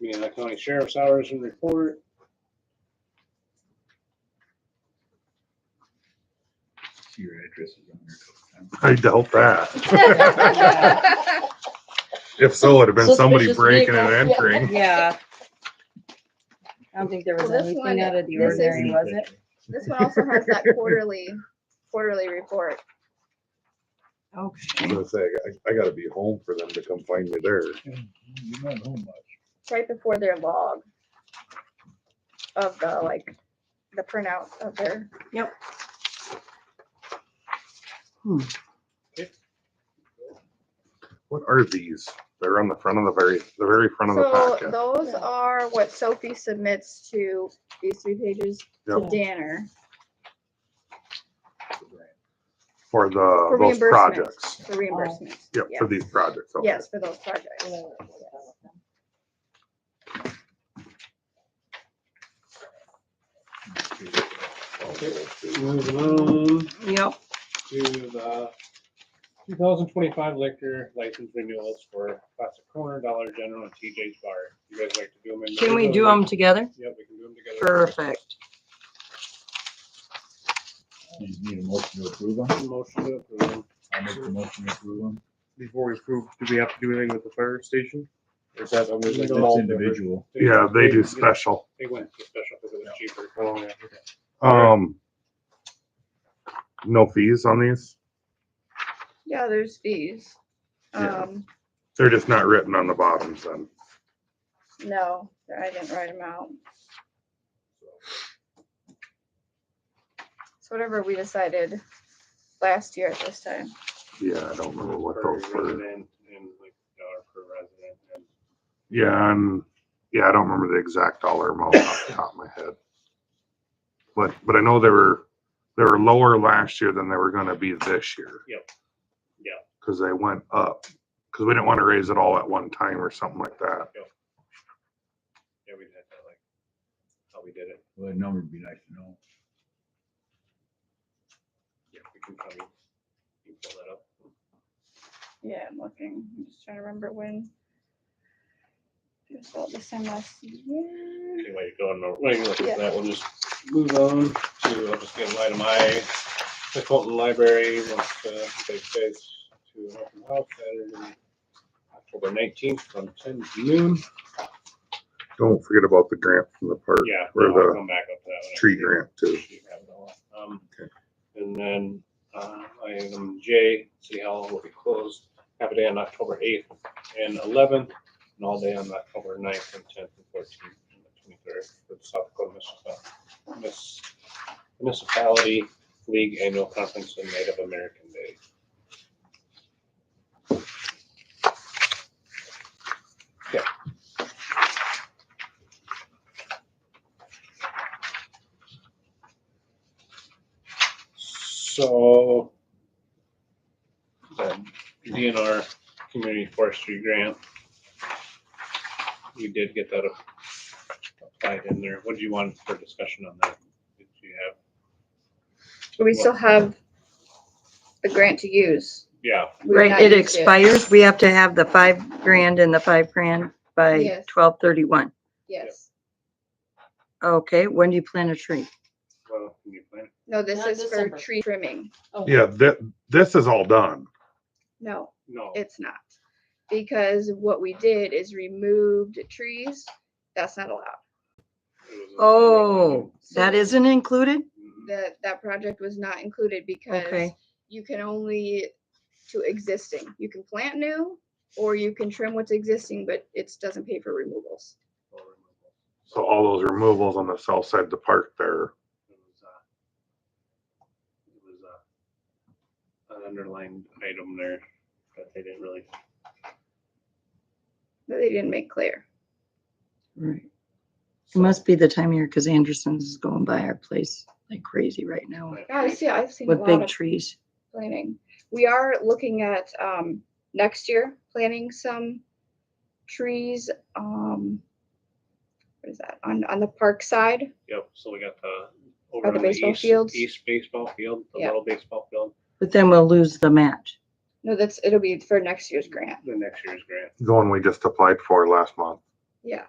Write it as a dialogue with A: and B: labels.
A: Indiana County Sheriff's Hours and Report.
B: See your addresses on there.
C: I doubt that.
D: Yeah.
C: If so, it'd have been somebody
E: Suspicious
C: breaking and
E: vehicle, yeah.
C: entering.
D: I don't think there was
E: Well, this one,
D: anything out of the
E: this is-
D: ordinary, was it?
E: This one also has that quarterly, quarterly report.
C: I'm
D: Okay.
C: gonna say, I- I gotta be home for them to come find me there.
B: You're not home much.
E: It's right before their log of the, like, the printout of their,
C: What are these? They're on the front of the very, the very front of the
E: so
C: packet.
E: those
D: Yeah.
E: are what Sophie submits to these three pages to
C: Yep.
E: Danner
C: For the, Uh,
E: for
C: those
E: reimbursement,
C: projects.
E: for reimbursement.
C: Yep, for these projects. okay.
E: Yes, for those projects.
A: Moving on
D: Yep.
A: to the two thousand twenty-five liquor license renewals for Classic Corner, Dollar General, and TJ's Bar. You guys like to do them in?
D: Can we do them together?
A: Yep, we can do them together.
D: Perfect.
B: You just need a motion to approve them.
A: Motion to approve. 'em.
B: I'll make the motion to approve them.
F: before we approve, do we have to do anything with the fire station? Or is that under like?
A: No.
B: That's individual.
C: Yeah, they do special.
A: They went to special because it was cheaper.
C: Um. No fees on these?
E: Yeah, there's fees.
C: Yeah.
E: Um,
C: They're just not written on the bottoms then.
E: no, I didn't write them out. So whatever we decided last year at this time.
C: Yeah, I don't remember what those
A: Per
C: were.
A: resident And like dollar per resident and
C: Yeah, and, yeah, I don't remember the exact dollar amount off the top of my head. But, but I know they were, they were lower last year than they were gonna be this year.
A: Yep. Yep.
C: Cause they went up, cause we didn't wanna raise it all at one time or something like that.
A: yeah, we did that like, how we did it.
B: Well, that number would be nice to know.
A: Yeah, we can probably, you pull that up.
E: Yeah, I'm looking. I'm just trying to remember when. It was about this time last year.
A: Anyway, go on, no- wait, look
E: Yeah.
A: at that, we'll just move on to, I'll just get an item I, the Colton Library uh, wants to take place to an open house Saturday, October nineteenth from ten to noon.
C: Don't forget about the grant from the park.
A: Yeah,
C: Or
A: no, I'll
C: the
A: come back up to that one.
C: tree grant too.
A: Um,
C: Okay.
A: And then, uh, item J, City Hall will be closed half a day on October eighth and eleventh, and all day on October 9th and tenth and fourteenth and the twenty-third for the South Dakota Municipal- Miss- Municipality League Annual Conference and Native American Day. So um, the DNR Community Forestry Grant. We did get that applied in there. What do you want for discussion on that? Did you have,
E: We still have the grant to use.
A: yeah,
E: We've
D: Right,
E: not
D: it
E: used
D: expires. We have to have the five grand and the five grand by
E: Yes.
D: twelve thirty-one.
E: Yes.
D: Okay, when do you plant a tree?
A: well, can you plan?
E: No, this
G: Not
E: is for
G: December.
E: tree trimming.
C: Yeah, that, this is all done.
E: No,
A: No,
E: it's not. Because what we did is removed trees. That's not allowed.
A: it was a-
D: Oh, that isn't included?
A: Mhm.
E: That, that project was not included because
D: Okay,
E: you can only to existing. You can plant new or you can trim what's existing, but it doesn't pay for removals.
C: So all those removals on the south side of the park there.
A: It was, uh, it was, uh, an underlined item there that they didn't really
E: That they didn't make clear.
D: right. It must be the time of year because Anderson's is going by our place like crazy right now
E: Yeah, I see, I've seen a
D: with
E: lot
D: big
E: of
D: trees.
E: planning. We are looking at, um, next year, planting some trees, um, what is that, on, on the park side?
A: Yep, so we got the. over
E: the
A: on
E: baseball
A: east-
E: fields?
A: East baseball field, the
E: Yeah.
A: little baseball field,
D: But then we'll lose the match.
E: No, that's, it'll be for next year's grant.
A: the next year's grant.
C: The one we just applied for last month.
E: Yeah,